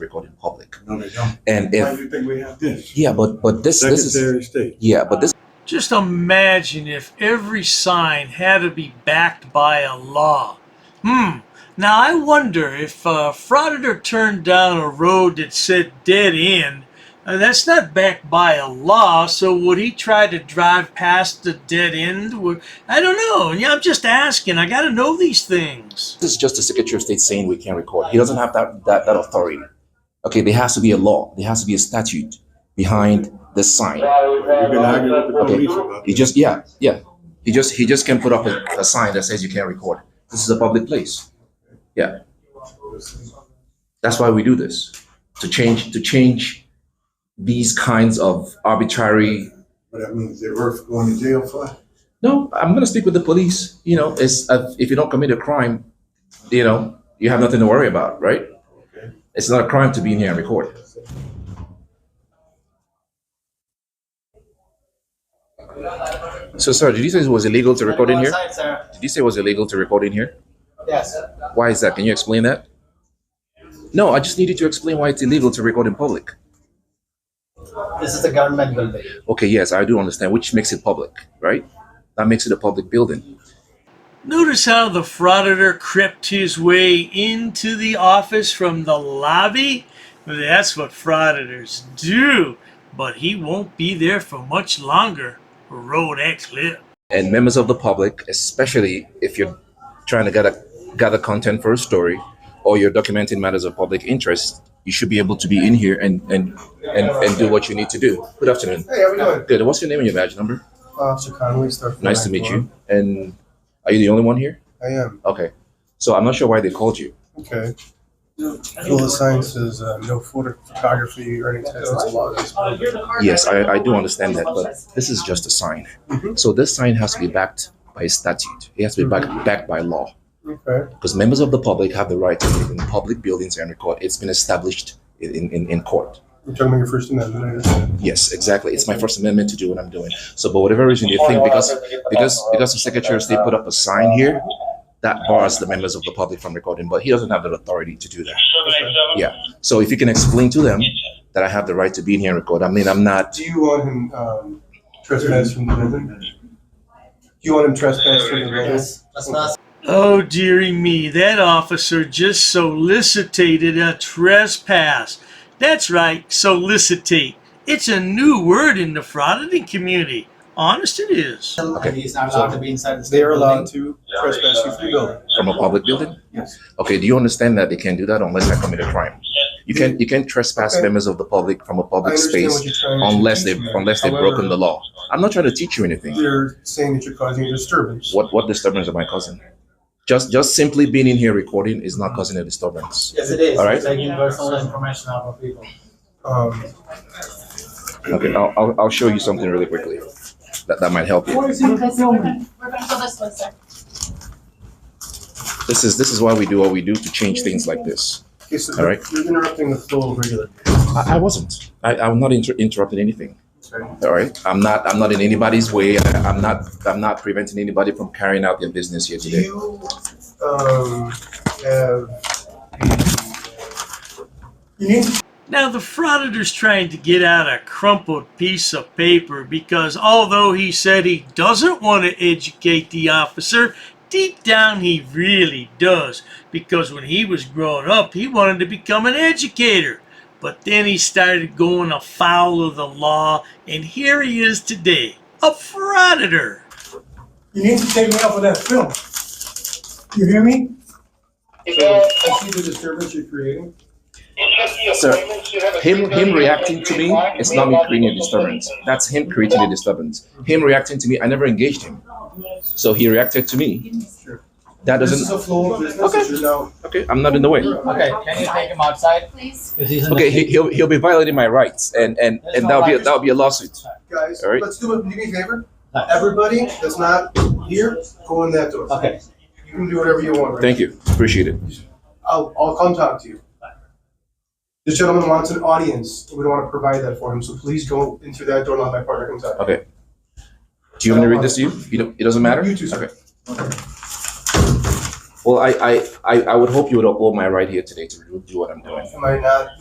record in public. No, they don't. And Why if do you think we have this? yeah, but but this this is Secretary of State. yeah, but this Just imagine if every sign had to be backed by a law. Hmm. Now I wonder if a frauditor turned down a road that said dead end. uh, that's not backed by a law, so would he try to drive past the dead end? Would- I don't know. Yeah, I'm just asking. I got to know these things. is just the Secretary of State saying we can record. He doesn't have that that, that authority. Okay, there has to be a law. There has to be a statute behind the sign. We've been arguing with the Okay. police about He this. just yeah yeah. He just he just can put up a, a sign that says you can't record. This is a public place. Yeah, that's why we do this to change to change these kinds of arbitrary But that means they're worth going to jail for. no, I'm gonna speak with the police. You know, it's uh, if you don't commit a crime, you know, you have nothing to worry about, right? It's not a crime to be in here and record. So, sir, did you say it was illegal to record in here? Outside, sir. Did you say it was illegal to record in here? Yes. Why is that? Can you explain that? No, I just needed to explain why it's illegal to record in public. This is a government building. Okay, yes, I do understand, which makes it public, right? That makes it a public building. Notice how the frauditor crept his way into the office from the lobby? That's what frauditors do, but he won't be there for much longer. Road that clip. and members of the public, especially if you're trying to gather gather content for a story or you're documenting matters of public interest, you should be able to be in here and and and, and do what you need to do. Good afternoon. Hey, how we doing? Good. What's your name and your badge number? Uh, Officer Conway, Star. Nice to meet you. And are you the only one here? I am. Okay. So I'm not sure why they called you. Okay. School of Science is uh, no photo- photography or any type of log. Yes, I, I do understand that, but this is just a sign. So this sign has to be backed by a statute. It has to be backed backed by law. Okay. because members of the public have the right to live in public buildings and record. It's been established in, in, in court. You're talking about your First Amendment. I understand. Yes, exactly. It's my First Amendment to do what I'm doing. So, but whatever reason you think, because because because the Secretary of State put up a sign here, that bars the members of the public from recording. But he doesn't have the authority to do that. Yeah. So if you can explain to them that I have the right to be in here and record, I mean, I'm not. Do you want him um, trespass from the building? Do you want him trespass from the building? Yes. That's not. Oh, dearie me, that officer just solicited a trespass. That's right, solicitate. It's a new word in the frauditing community. Honest it is. And he's not allowed to be inside the. They are allowed to trespass you from the building. from a public building? Yes. Okay, do you understand that they can do that unless I commit a crime? You can, you can trespass Okay. members of the public from a I public understand what space you're trying to unless they've, teach me. unless they've However, broken the law. I'm not trying to teach you anything. They're saying that you're causing a disturbance. What, what disturbance am I causing? Just, just simply being in here recording is not causing a disturbance. Yes, it is. All right. You're Taking personal information out of people. Um, Okay, I'll, I'll, I'll show you something really quickly. That, that might help you. We're gonna go this way, sir. This is, this is why we do what we do to change things like this. okay, so All right. you're interrupting the flow of regular. I, I wasn't. I, I'm not inter- interrupting anything. Okay. All right. I'm not. I'm not in anybody's way. I, I'm not. I'm not preventing anybody from carrying out their business here Do today. you um, have? You need Now, the frauditor's trying to get out a crumpled piece of paper because although he said he doesn't want to educate the officer, deep down he really does. Because when he was growing up, he wanted to become an educator. But then he started going afoul of the law, and here he is today a frauditor. You need to take me off of that film. You hear me? uh, So, I see the disturbance you're creating. Sir, Him, him reacting to me is not me creating a disturbance. That's him creating a disturbance. Him reacting to me, I never engaged him. So he reacted to me. That This is doesn't. a flow of business that you're now. Okay, I'm not in the way. Okay, can you take him outside? Please. Because he's in the. Okay, he, he'll he'll be violating my rights, and and and that'll be a, that'll be a lawsuit. Guys, All right. let's do, a- do me a favor. Nice. Everybody that's not here, go in that door. Okay. You can do whatever you want. right? Thank you. Appreciate it. I'll, I'll come talk to you. This gentleman wants an audience. and We don't want to provide that for him, so please go in through that door and let my partner come talk. Okay. Do you want me to read this to you? You don't, it doesn't matter? You too, sir. Okay. Well, I, I, I, I would hope you would uphold my right here today to do what I'm doing. Am I not